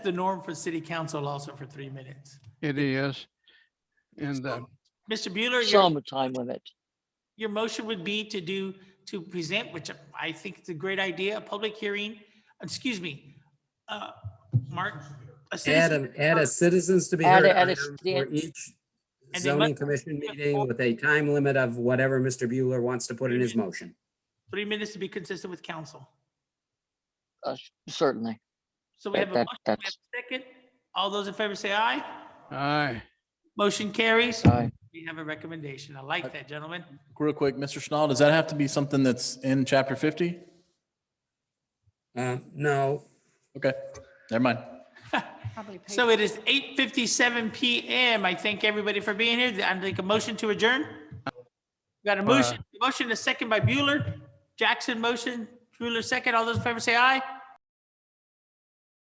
the norm for city council also for three minutes. It is. And uh, Mr. Bueller, your, some time limit. your motion would be to do, to present, which I think is a great idea, a public hearing, excuse me, uh, Mark. a Add citizen- an, add a citizens to be Add heard a- add a item for stand- each And then let- zoning commission meeting with a time limit of whatever Mr. Bueller wants to put in his motion. Three minutes to be consistent with council. Uh, certainly. So we have a That- motion, we have that's- a second. All those in favor say aye. I, Motion carries. Aye. We have a recommendation. I like that, gentlemen. Real quick, Mr. Schnall, does that have to be something that's in chapter fifty? Uh, no, Okay, never mind. So it is 8:57 PM. I thank everybody for being here. I'd like a motion to adjourn. Got a motion, motion a second by Bueller. Jackson motion, Bueller second. All those in favor say aye.